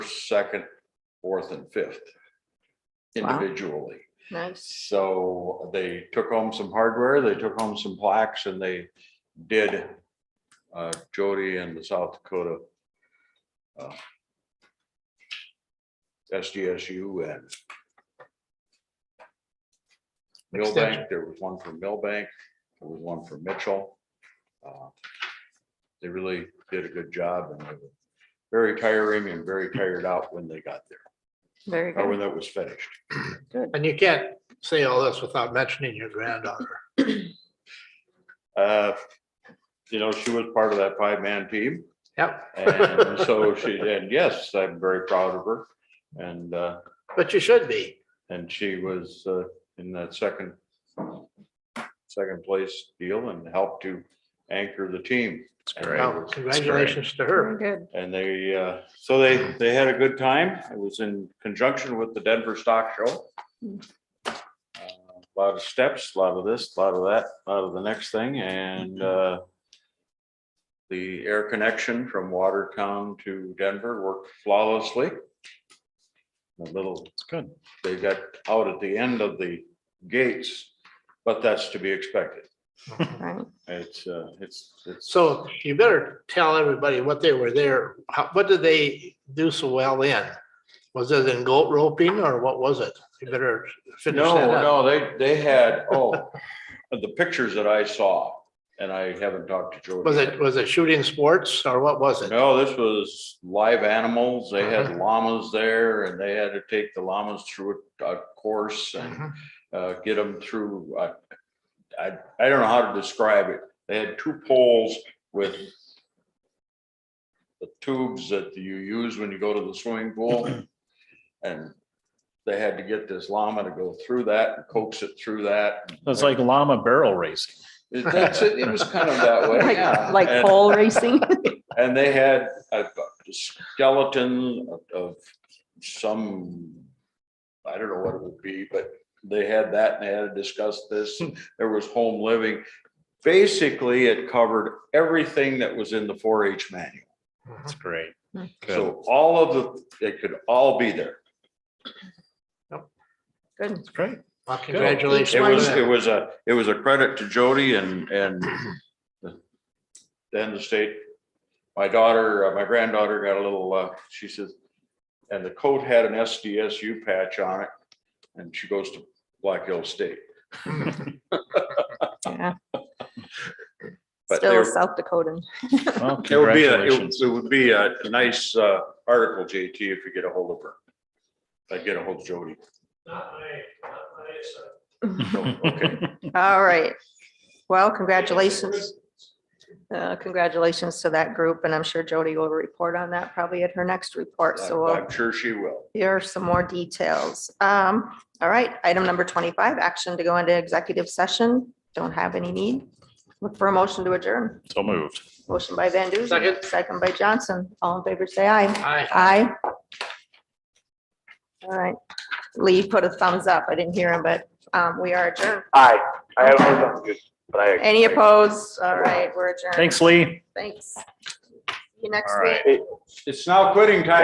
second, fourth and fifth Wow. individually. Nice. So they took home some hardware, they took home some plaques and they did uh, Jody and the South Dakota uh, SDSU and Millbank, there was one from Millbank, there was one from Mitchell. Uh, They really did a good job and they were very tiring and very tired out when they got there, Very or when good. that was finished. And you can't say all this without mentioning your granddaughter. Uh, You know, she was part of that five-man team. Yep. And so she, and yes, I'm very proud of her. And, uh, But you should be. and she was, uh, in that second, second place deal and helped to anchor the team. Well, Congratulations to Very her. good. And they, uh, so they, they had a good time. It was in conjunction with the Denver Stock Show. A Lot of steps, a lot of this, a lot of that, a lot of the next thing and, uh, the air connection from Watertown to Denver worked flawlessly. A little. It's good. They got out at the end of the gates, but that's to be expected. Right. It's, uh, it's, it's. So you better tell everybody what they were there. How, what did they do so well in? Was it in goat roping or what was it? You better finish No, that up. no, they, they had, oh, the pictures that I saw, and I haven't talked to Jody. Was it, was it shooting sports or what was it? No, this was live animals. They Uh-huh. had llamas there and they had to take the llamas through a a course and Mhm. uh, get them through. uh, I, I don't know how to describe it. They had two poles with the tubes that you use when you go to the swimming pool. And they had to get this llama to go through that, and coax it through that. It's like llama barrel racing. It- That's it. It was kind of that way, yeah. Like, like And- pole racing. And they had a a skeleton of- of some, I don't know what it would be, but they had that and they had to discuss this. Hmm. There was home living. Basically, it covered everything that was in the four H manual. Mm-hmm. It's great. Good. So all of the, it could all be there. Good. It's great. Well, It Congratulations. was, to it them. was a, it was a credit to Jody and, and then the state, my daughter, uh, my granddaughter got a little, uh, she says, and the coat had an SDSU patch on it, and she goes to Black Hill State. Yeah. But Still they're- South Dakotan. Well, It would be, a- it congratulations. would- it would be a nice, uh, article, JT, if you get a hold of her. If I get a hold of Jody. Okay. All right. Well, congratulations. Uh, Congratulations to that group and I'm sure Jody will report on that probably at her next report. So uh, we'll I'm sure she will. Here are some more details. Um, all right, item number twenty-five, action to go into executive session. Don't have any need. Look for a motion to adjourn. So moved. Motion by Van Duzen. Second. Second by Johnson. All in favor, say aye. Hi. Aye. All right, Lee put a thumbs up. I didn't hear him, but, um, we are adjourned. Aye. I have no good, but I. Any opposed? All right, we're adjourned. Thanks, Lee. Thanks. See you next All week. right. It's now quitting time.